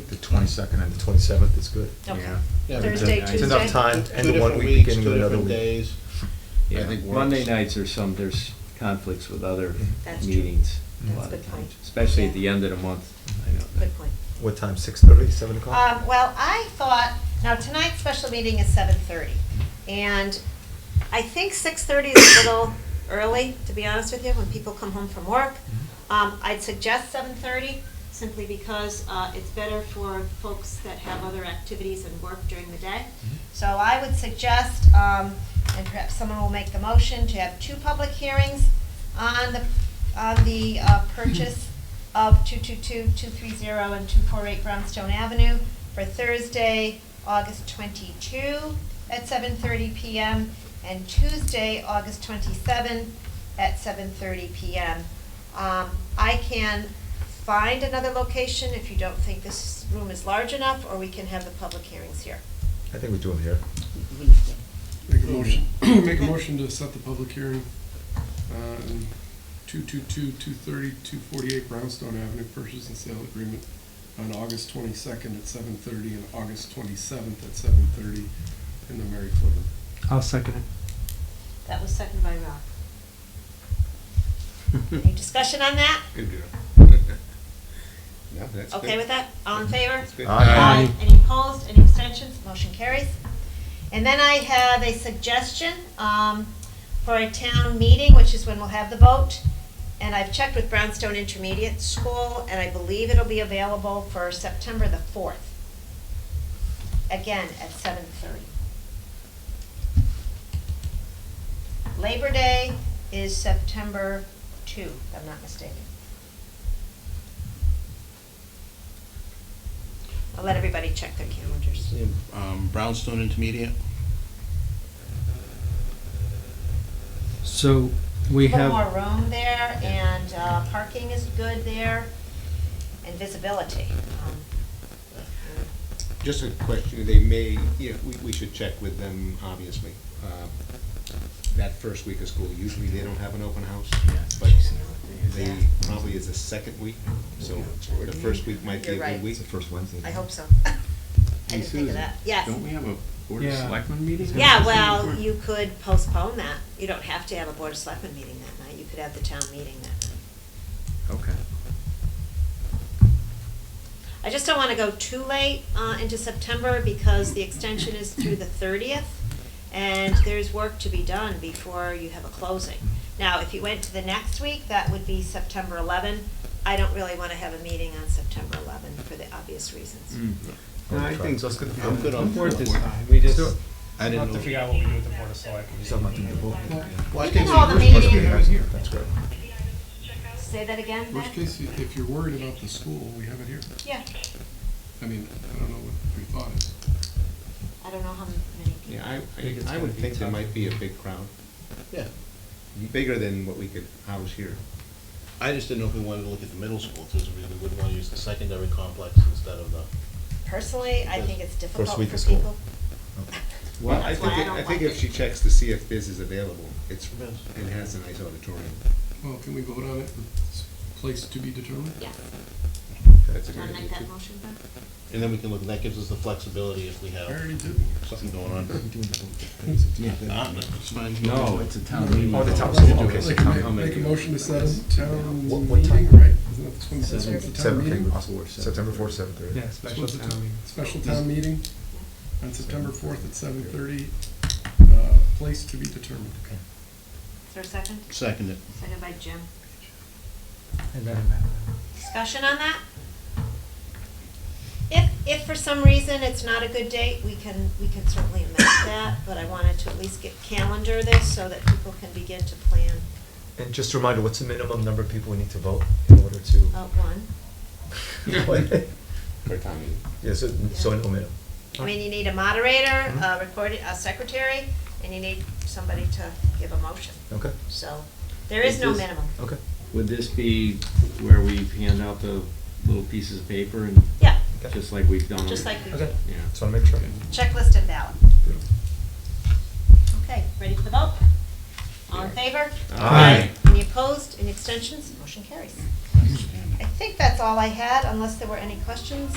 twenty-second and the twenty-seventh is good. Okay. Yeah. Yeah, Thursday, It's Tuesday. enough time, Two end of one different week, weeks, beginning two of another different week. days. I Yeah. think works. Monday nights are some, there's conflicts with other That's true. meetings That's a lot a of good point. times, especially at Yeah. the end of the month, I know. that. Good point. What time, six thirty, seven o'clock? Um, well, I thought, now tonight's special meeting is seven thirty, and I think six thirty is a little early, to be honest with you, when people come home from work. Um, I'd suggest seven thirty, simply because, uh, it's better for folks that have other activities and work during the day. So I would suggest, um, and perhaps someone will make the motion, to have two public hearings on the, on the, uh, purchase of 222, 230, and 248 Brownstone Avenue for Thursday, August 22 at 7:30 PM, and Tuesday, August 27 at 7:30 PM. Um, I can find another location if you don't think this room is large enough, or we can have the public hearings here. I think we do them here. Make a motion, make a motion to set the public hearing, uh, in two-two-two, two-thirty, two-forty-eight Brownstone Avenue Purchase and Sale Agreement on August twenty-second at seven-thirty and August twenty-seventh at seven-thirty in the Mary Flipper. I'll second it. That was seconded by Rob. Any discussion on that? Good deal. Yeah, that's Okay with that? All in favor? Aye. Any opposed, any abstentions, motion carries. And then I have a suggestion um, for a town meeting, which is when we'll have the vote. And I've checked with Brownstone Intermediate School, and I believe it'll be available for September the 4th. Again, at 7:30. Labor Day is September 2, if I'm not mistaken. I'll let everybody check their calendars. Um, Brownstone Intermediate. So we little have. more room there, and uh, parking is good there, and visibility. um, Just a question, they may, yeah, we, we should check with them, obviously. Uh, That first week of school, usually they don't have an open house, but they, probably is the second week, so the first week might be a You're right. good week. It's the first Wednesday. I hope so. I Hey, didn't think of Susan, that, yes. Don't we have a Board of Yeah. Selectmen meeting? Yeah, well, you could postpone that. You don't have to have a Board of Selectmen meeting that night. You could have the town meeting that night. Okay. I just don't want to go too late uh, into September because the extension is through the thirtieth, and there's work to be done before you have a closing. Now, if you went to the next week, that would be September eleven. I don't really want to have a meeting on September eleven for the obvious Hmm. Mm. reasons. No, I think- So it's good. I'm good on Board four. this time, we just. Still- I didn't know. out what we do with the board of selectmen. Still not doing the vote. Well, I You can think- call the Must be meeting. here. That's great. Say that again, Ben? Worst case, you- if you're worried about the school, we have it here. Yeah, I mean, I don't know what your thought is. I don't know how many people. Yeah, I, I- I would think there might be a big crowd, Yeah. bigger than what we could house here. I just didn't know if we wanted to look at the middle school, too, so we we wouldn't want to use the secondary complex instead of the. Personally, I think it's difficult for week of school. people. Well, I That's why think, I it- don't I think like if it. she checks to see if Biz is available, it's, Biz. it has a nice auditorium. Well, can we vote on it? It's Place to be determined? Yeah, That's a do good you want to idea. make that too. motion, Ben? And then we can look, that gives us the flexibility if we I have already did. something going on. Uh, it's fine. No, it's a town meeting. Oh, the town, so, okay, so Like, town. ma- Make a motion to set a town What- what time? meeting, right? Isn't that the twenty-seventh, the town Seven, meeting? September fourth, seven thirty. Yeah, special Special town meeting. Special town meeting on September fourth at seven thirty, uh, place to be determined. Is there a second? Second it. Second by Jim. It doesn't matter. Discussion on that? If, if for some reason it's not a good date, we can, we can certainly amend that, but I wanted to at least get calendar this so that people can begin to plan And just a reminder, what's the minimum number of people we need to vote in order to? out one. For a town meeting. Yeah, so, so no minimum. I mean, you need a moderator, Mm-hmm. a recorded, a secretary, and you need somebody to give a motion. Okay, So there is no minimum. okay. Would this be where we hand out the little pieces of paper and, Yeah, Okay. just like we've done? just like we Okay, Yeah. just wanna make sure. checklist and ballot. Okay, ready for the vote? All in favor? Aye. Any opposed, any extensions? Motion carries. I think that's all I had, unless there were any questions.